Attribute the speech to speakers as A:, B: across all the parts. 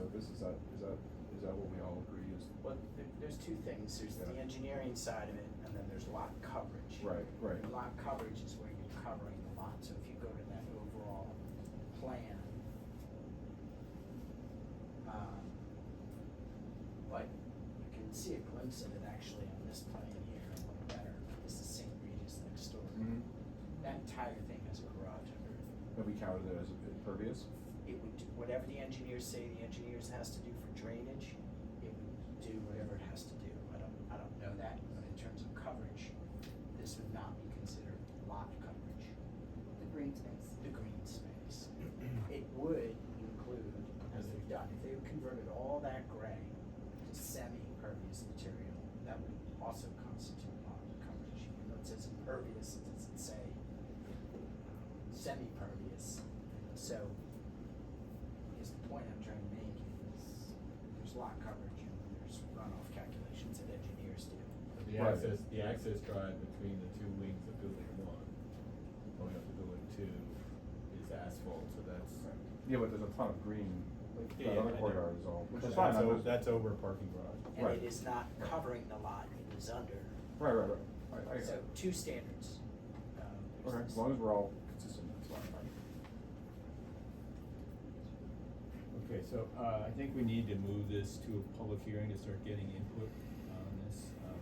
A: this, is that, is that, is that what we all agree is?
B: Well, there, there's two things, there's the
A: Yeah.
B: engineering side of it, and then there's lot coverage.
A: Right, right,
B: Lot coverage is where you're covering the lot, so if you go to that overall plan. um, But you can see a glimpse of it actually on this plan here, a little better, this is St. Regis next door.
A: mhm,
B: That entire thing has a garage under it.
A: have we counted it as impervious?
B: It would, do whatever the engineers say the engineers has to do for drainage, it would do whatever it has to do. I don't, I don't know that, but in terms of coverage, this would not be considered lot coverage,
C: the green space.
B: the green space. It would include, as they've done, if they converted all that gray to semi-impervious material, that would also constitute lot coverage. Even though it says impervious, it doesn't say semi-pervious. So, I guess the point I'm trying to make is, there's lot coverage and there's runoff calculations that engineers do.
D: The
A: Right.
D: access, the access drive between the two wings of building one, going up to building two, is asphalt, so that's.
A: Yeah, but there's a ton of green, like,
D: Yeah,
A: that other
D: I know.
A: corridor is all, which is
D: That's
A: fine, I'm
D: o-
A: just-
D: That's over parking garage.
B: And
A: Right.
B: it is not covering the lot, it is under.
A: right, right, right, I, I,
B: So, two standards. Um, there's
A: okay,
B: this-
A: as long as we're all consistent, that's fine,
D: Okay, so, uh, I think we need to move this to a public hearing to start getting input on this, um,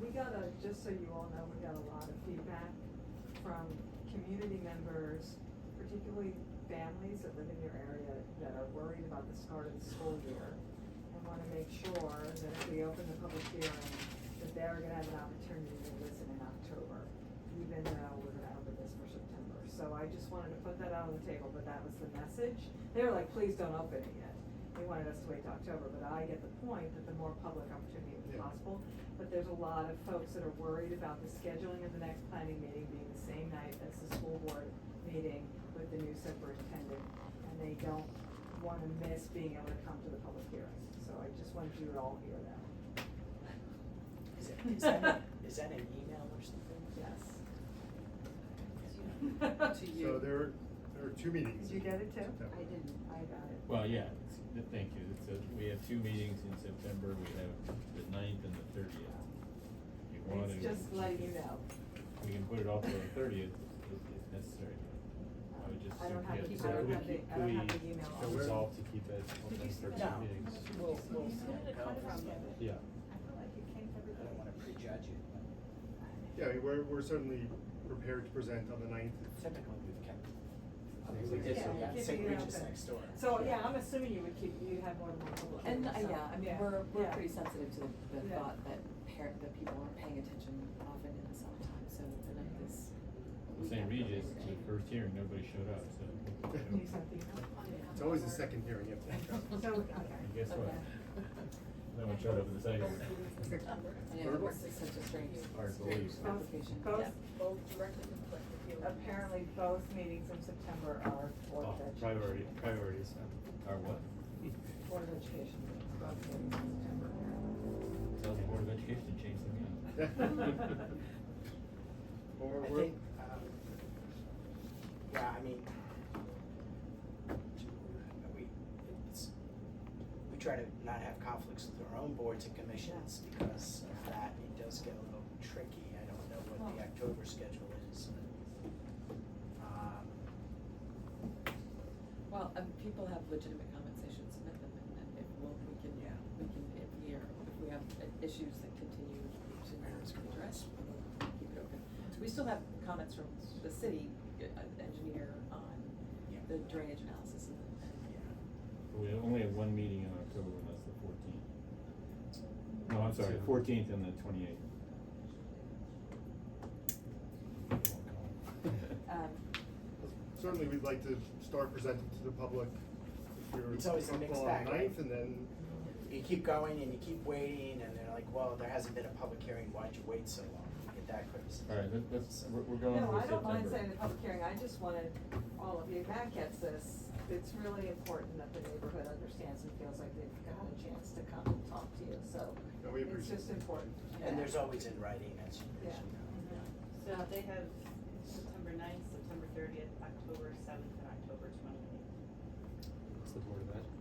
E: We got a, just so you all know, we got a lot of feedback from community members, particularly families that live in your area that are worried about the start of the school year. And wanna make sure that if we open the public hearing, that they're gonna have an opportunity to listen in October, even though we're gonna open this for September. So I just wanted to put that out on the table, but that was the message. They were like, please don't open it yet. They wanted us to wait till October, but I get the point that the more public opportunity is
A: Yeah.
E: possible. But there's a lot of folks that are worried about the scheduling of the next planning meeting being the same night as the school board meeting with the new superintendent. And they don't wanna miss being able to come to the public hearing, so I just wanted you to all hear that,
B: Is it- is that, is that an email or something?
E: yes.
C: To
F: So
C: you.
F: there, are- there are two meetings.
E: Did you get it too?
F: September.
C: I didn't, I got it.
D: well, yeah, it's- th- thank you, it's a, we have two meetings in September, we have the ninth and the thirtieth. If you want to.
E: It's just letting you know.
D: We can put it off to the thirtieth if, if necessary. I would just.
E: I don't have
D: yeah,
E: the-
D: so
E: I don't
D: we
E: have the-
D: keep-
E: I don't have
D: we
E: the email
D: should
F: on.
D: Resolve to keep it
C: Did you
D: open for
B: No.
C: submit
D: two meetings.
B: We'll, we'll.
C: submitted a
B: go
C: cut
B: from
C: from
B: it.
D: Yeah,
C: I feel like it came to
B: I don't wanna
C: everybody.
B: prejudge it,
F: Yeah, I mean, we're, we're certainly prepared to present on the ninth.
B: but typically we've kept.
F: I mean, we
E: did, so Yeah, yeah.
B: St.
E: keep it
B: Regis
E: open.
B: next door.
E: So, yeah, I'm assuming you would keep, you have more than one public.
C: And,
E: hearing, so,
C: uh, yeah, I mean,
E: yeah,
C: we're, we're
E: yeah.
C: pretty sensitive to the, the
E: Yeah.
C: thought that par that people aren't paying attention often in the summertime, so the night is. we
D: St.
C: have to
D: Regis,
C: be
D: the
C: ready.
D: first hearing, nobody showed up, so.
E: Can you send the email?
F: It's always the second hearing, you have to.
E: So, okay.
D: And guess what?
C: Okay.
D: No one showed up in the second. one.
C: I know, it's such a strange
D: Hard to believe.
C: strange complication.
E: Both-
C: Yeah.
G: both directly conflict with the.
E: Apparently, both meetings in September are Board of
D: Oh,
E: Education.
D: Priority, priorities, um, are what?
E: Board of Education meetings, both meetings in September.
D: Tell the Board of Education to change their mind.
E: uh,
F: Or
B: I
F: we're-
B: think, um, yeah, I mean, we, it's, we try to not have conflicts with our own boards and commissions because of that, it does get a little tricky, I don't know what the October schedule is. Um,
C: Well, um, people have legitimate comments, they should submit them, and then if, well, we can,
B: Yeah.
C: we can, if we are, if we have uh, issues that continue to
B: I know it's
C: be
B: cool.
C: addressed, we'll keep it open. We still have comments from the city uh, engineer on
B: Yeah.
C: the drainage analysis and the, and
B: yeah,
D: We only have one meeting in October, and that's the fourteenth. No, I'm sorry, fourteenth and the
E: Uh,
D: twenty-eighth.
C: Um,
F: Certainly, we'd like to start presenting to the public. if you're
B: It's always a mixed
F: comfortable on
B: bag,
F: the
B: right?
F: ninth, and then,
B: you keep going and you keep waiting, and they're like, well, there hasn't been a public hearing, why'd you wait so long? You Get that criticism.
D: All right, let- let's,
B: So-
D: we're, we're going
E: No,
D: for September.
E: I don't mind saying the public hearing, I just wanted all of you, Matt gets this, it's really important that the neighborhood understands and feels like they've got a chance to come and talk to you, so.
F: No, we
E: It's
F: appreciate
E: just
F: it.
E: important.
B: And there's always in writing, as you, as you know.
E: Yeah.
G: So they have September ninth, September thirtieth, October seventh, and October twenty-eighth.
H: It's the Board of Ed.